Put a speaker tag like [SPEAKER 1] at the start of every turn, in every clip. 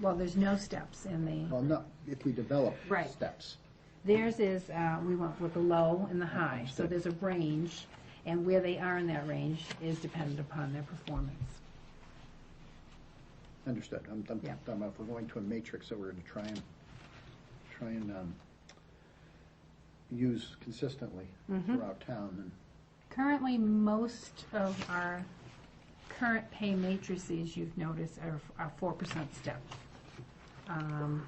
[SPEAKER 1] Well, there's no steps in the,
[SPEAKER 2] Well, no, if we develop
[SPEAKER 1] Right.
[SPEAKER 2] steps.
[SPEAKER 1] theirs is, uh, we went with the low and the high, so there's a range, and where they are in that range is dependent upon their performance.
[SPEAKER 2] Understood. I'm, I'm
[SPEAKER 1] Yeah.
[SPEAKER 2] talking about if we're going to a matrix, so we're gonna try and, try and, um, use consistently
[SPEAKER 1] Mm-hmm.
[SPEAKER 2] throughout town and
[SPEAKER 1] Currently, most of our current pay matrices, you've noticed, are, are four percent step. Um,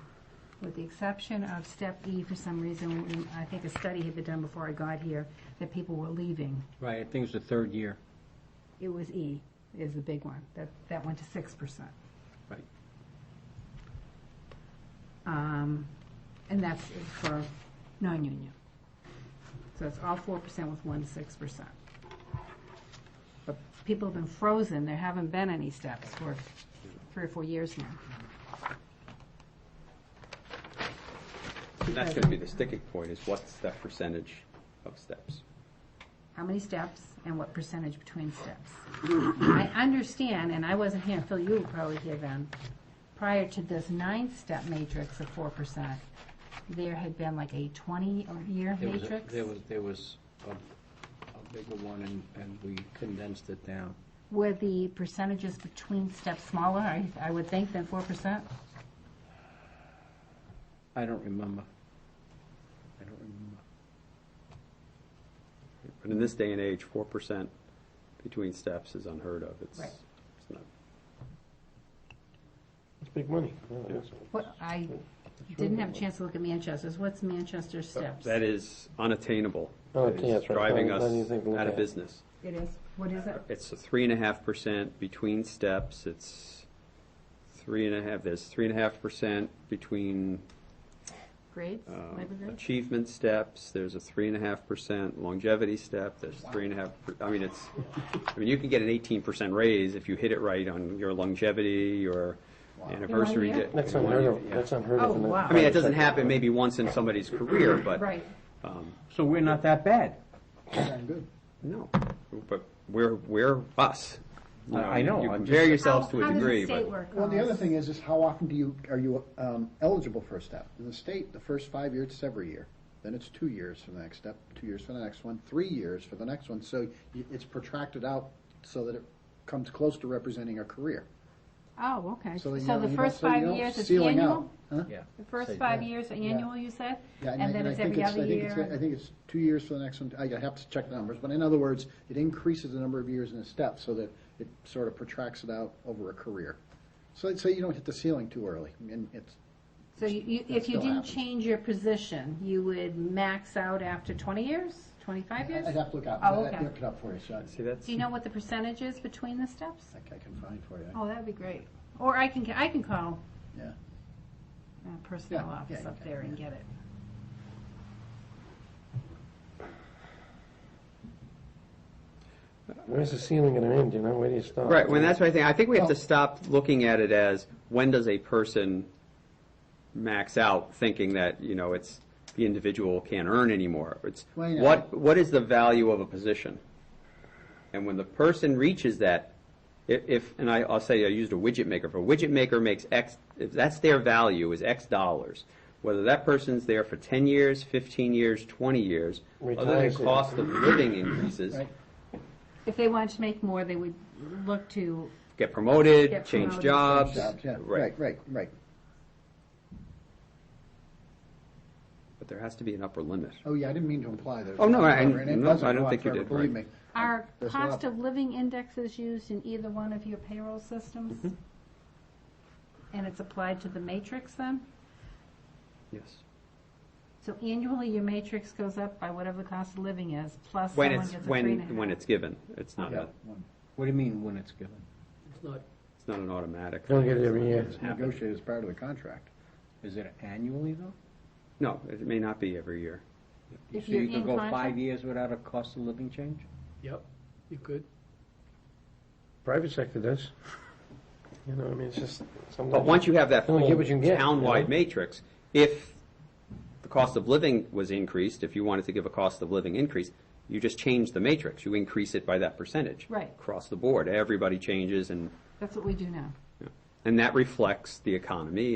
[SPEAKER 1] With the exception of step E, for some reason, we- I think a study had been done before I got here, that people were leaving.
[SPEAKER 3] Right, I think it's the third year.
[SPEAKER 1] It was E is the big one, that, that went to six percent.
[SPEAKER 3] Right.
[SPEAKER 1] Um, and that's for non-union. So it's all four percent with one six percent. But people have been frozen, there haven't been any steps for three or four years now.
[SPEAKER 4] That's going to be the sticking point, is what's that percentage of steps?
[SPEAKER 1] How many steps and what percentage between steps? I understand, and I wasn't here, Phil, you were probably here then, prior to this nine-step matrix of four percent, there had been like a twenty-year
[SPEAKER 3] There was a-
[SPEAKER 1] matrix.
[SPEAKER 3] There was, there was a, a bigger one, and, and we condensed it down.
[SPEAKER 1] Were the percentages between steps smaller, I, I would think, than four percent?
[SPEAKER 3] I don't remember. I don't remember.
[SPEAKER 4] But in this day and age, four percent between steps is unheard of. It's,
[SPEAKER 1] Right.
[SPEAKER 4] it's not,
[SPEAKER 5] It's big money. Yeah, it is.
[SPEAKER 1] What, I didn't have a chance to look at Manchester's, what's Manchester's steps?
[SPEAKER 4] Uh, that is unattainable.
[SPEAKER 5] Oh,
[SPEAKER 4] It is
[SPEAKER 5] yeah, that's right.
[SPEAKER 4] Driving
[SPEAKER 5] Not- not
[SPEAKER 4] us
[SPEAKER 5] anything to look
[SPEAKER 4] out of
[SPEAKER 5] at.
[SPEAKER 4] business.
[SPEAKER 1] It is, what is it?
[SPEAKER 4] It's a three and a half percent between steps, it's three and a half, there's three and a half percent between
[SPEAKER 1] Grades,
[SPEAKER 4] um,
[SPEAKER 1] labor grades?
[SPEAKER 4] achievement steps, there's a three and a half percent longevity step, there's three and a half, per- I mean, it's, I mean, you can get an eighteen percent raise if you hit it right on your longevity, your anniversary.
[SPEAKER 1] In one year?
[SPEAKER 4] di-
[SPEAKER 5] That's
[SPEAKER 4] in one
[SPEAKER 5] unheard
[SPEAKER 4] year,
[SPEAKER 5] of,
[SPEAKER 4] yeah.
[SPEAKER 5] that's unheard of.
[SPEAKER 1] Oh,
[SPEAKER 5] in the-
[SPEAKER 1] wow.
[SPEAKER 4] I mean, it doesn't happen maybe once in somebody's career, but.
[SPEAKER 1] Right,
[SPEAKER 4] um,
[SPEAKER 3] So we're not that bad.
[SPEAKER 2] sound good.
[SPEAKER 4] No, but we're, we're us. You
[SPEAKER 3] I- I know,
[SPEAKER 4] You
[SPEAKER 3] I'm
[SPEAKER 4] compare
[SPEAKER 3] just-
[SPEAKER 4] yourselves to
[SPEAKER 1] How-
[SPEAKER 4] a degree,
[SPEAKER 1] How does the state
[SPEAKER 4] but.
[SPEAKER 1] work?
[SPEAKER 2] Well, the
[SPEAKER 1] Alice?
[SPEAKER 2] other thing is, is how often do you, are you um, eligible for a step? In the state, the first five years, it's every year. Then it's two years for the next step, two years for the next one, three years for the next one. So y- it's protracted out so that it comes close to representing a career.
[SPEAKER 1] Oh, okay, so
[SPEAKER 2] that you don't-
[SPEAKER 1] the
[SPEAKER 2] you
[SPEAKER 1] first
[SPEAKER 2] don't- so you
[SPEAKER 1] five
[SPEAKER 2] don't
[SPEAKER 1] years is
[SPEAKER 2] ceiling out.
[SPEAKER 1] annual?
[SPEAKER 2] Huh?
[SPEAKER 3] Yeah.
[SPEAKER 1] The first
[SPEAKER 3] Say-
[SPEAKER 1] five years are annual, you said?
[SPEAKER 2] Yeah,
[SPEAKER 1] And
[SPEAKER 2] I-
[SPEAKER 1] then
[SPEAKER 2] I
[SPEAKER 1] it's
[SPEAKER 2] think
[SPEAKER 1] every
[SPEAKER 2] I
[SPEAKER 1] other
[SPEAKER 2] think it's- I
[SPEAKER 1] year?
[SPEAKER 2] think it's two years for the next one, I have to check the numbers, but in other words, it increases the number of years in a step so that it sort of protracts it out over a career. So, so you don't hit the ceiling too early, and it's,
[SPEAKER 1] So you- you,
[SPEAKER 2] That
[SPEAKER 1] if you
[SPEAKER 2] still
[SPEAKER 1] didn't
[SPEAKER 2] happens.
[SPEAKER 1] change your position, you would max out after twenty years, twenty-five years?
[SPEAKER 2] I'd have to look up,
[SPEAKER 1] Oh,
[SPEAKER 2] I'd have to
[SPEAKER 1] okay.
[SPEAKER 2] look it up for you, so I
[SPEAKER 4] See, that's,
[SPEAKER 1] Do you know what the percentage is between the steps?
[SPEAKER 2] I I can find for you.
[SPEAKER 1] Oh, that'd be great. Or I can, I can call
[SPEAKER 2] Yeah,
[SPEAKER 1] uh, personnel
[SPEAKER 2] Yeah, yeah,
[SPEAKER 1] office
[SPEAKER 2] you
[SPEAKER 1] up
[SPEAKER 2] can,
[SPEAKER 1] there and
[SPEAKER 2] yeah.
[SPEAKER 1] get it.
[SPEAKER 5] Where's the ceiling gonna end, you know, where do you stop?
[SPEAKER 4] right, well, that's what I think, I think we have to
[SPEAKER 2] Well-
[SPEAKER 4] stop looking at it as, when does a person max out, thinking that, you know, it's, the individual can't earn anymore? It's,
[SPEAKER 2] Well, you know-
[SPEAKER 4] what, what is the value of a position? And when the person reaches that, if, if, and I, I'll say I used a widget maker, if a widget maker makes X, if that's their value is X dollars, whether that person's there for ten years, fifteen years, twenty years, other than
[SPEAKER 5] Retires it.
[SPEAKER 4] cost of living increases,
[SPEAKER 2] Right.
[SPEAKER 1] If they wanted to make more, they would look to,
[SPEAKER 4] get promoted,
[SPEAKER 1] Get
[SPEAKER 4] change
[SPEAKER 1] promoted,
[SPEAKER 4] jobs.
[SPEAKER 2] jobs, yeah, right, right, right.
[SPEAKER 4] But there has to be an upper limit.
[SPEAKER 2] Oh, yeah, I didn't mean to imply that.
[SPEAKER 4] Oh, no, I-
[SPEAKER 2] And it
[SPEAKER 4] no,
[SPEAKER 2] doesn't
[SPEAKER 4] I don't
[SPEAKER 2] go on
[SPEAKER 4] think you
[SPEAKER 2] forever,
[SPEAKER 4] did,
[SPEAKER 2] Believe me.
[SPEAKER 4] right.
[SPEAKER 1] are
[SPEAKER 2] There's a lot-
[SPEAKER 1] cost of living indexes used in either one of your payroll systems? And it's applied to the matrix then?
[SPEAKER 4] Yes.
[SPEAKER 1] So annually, your matrix goes up by whatever the cost of living is, plus
[SPEAKER 4] When
[SPEAKER 1] someone
[SPEAKER 4] it's,
[SPEAKER 1] gets a three and a half.
[SPEAKER 4] when, when it's given, it's not,
[SPEAKER 2] Yeah,
[SPEAKER 4] a-
[SPEAKER 2] one.
[SPEAKER 3] What do you mean when it's given?
[SPEAKER 4] it's not an automatic.
[SPEAKER 5] Don't get it every year.
[SPEAKER 2] It's negotiated as part of the contract.
[SPEAKER 3] Is it annually, though?
[SPEAKER 4] No, it may not be every year.
[SPEAKER 1] If
[SPEAKER 3] So
[SPEAKER 1] you're
[SPEAKER 3] you
[SPEAKER 1] in
[SPEAKER 3] could go
[SPEAKER 1] contract-
[SPEAKER 3] five years without a cost of living change?
[SPEAKER 6] Yep, you could.
[SPEAKER 5] Private sector does. You know, I mean, it's just sometimes.
[SPEAKER 4] But once you have that
[SPEAKER 5] You only
[SPEAKER 4] full
[SPEAKER 5] get what you can get, you
[SPEAKER 4] town-wide
[SPEAKER 5] know?
[SPEAKER 4] matrix, if the cost of living was increased, if you wanted to give a cost of living increase, you just change the matrix. You increase it by that percentage.
[SPEAKER 1] Right.
[SPEAKER 4] Across the board, everybody changes and
[SPEAKER 1] That's what we do now.
[SPEAKER 4] And that reflects the economy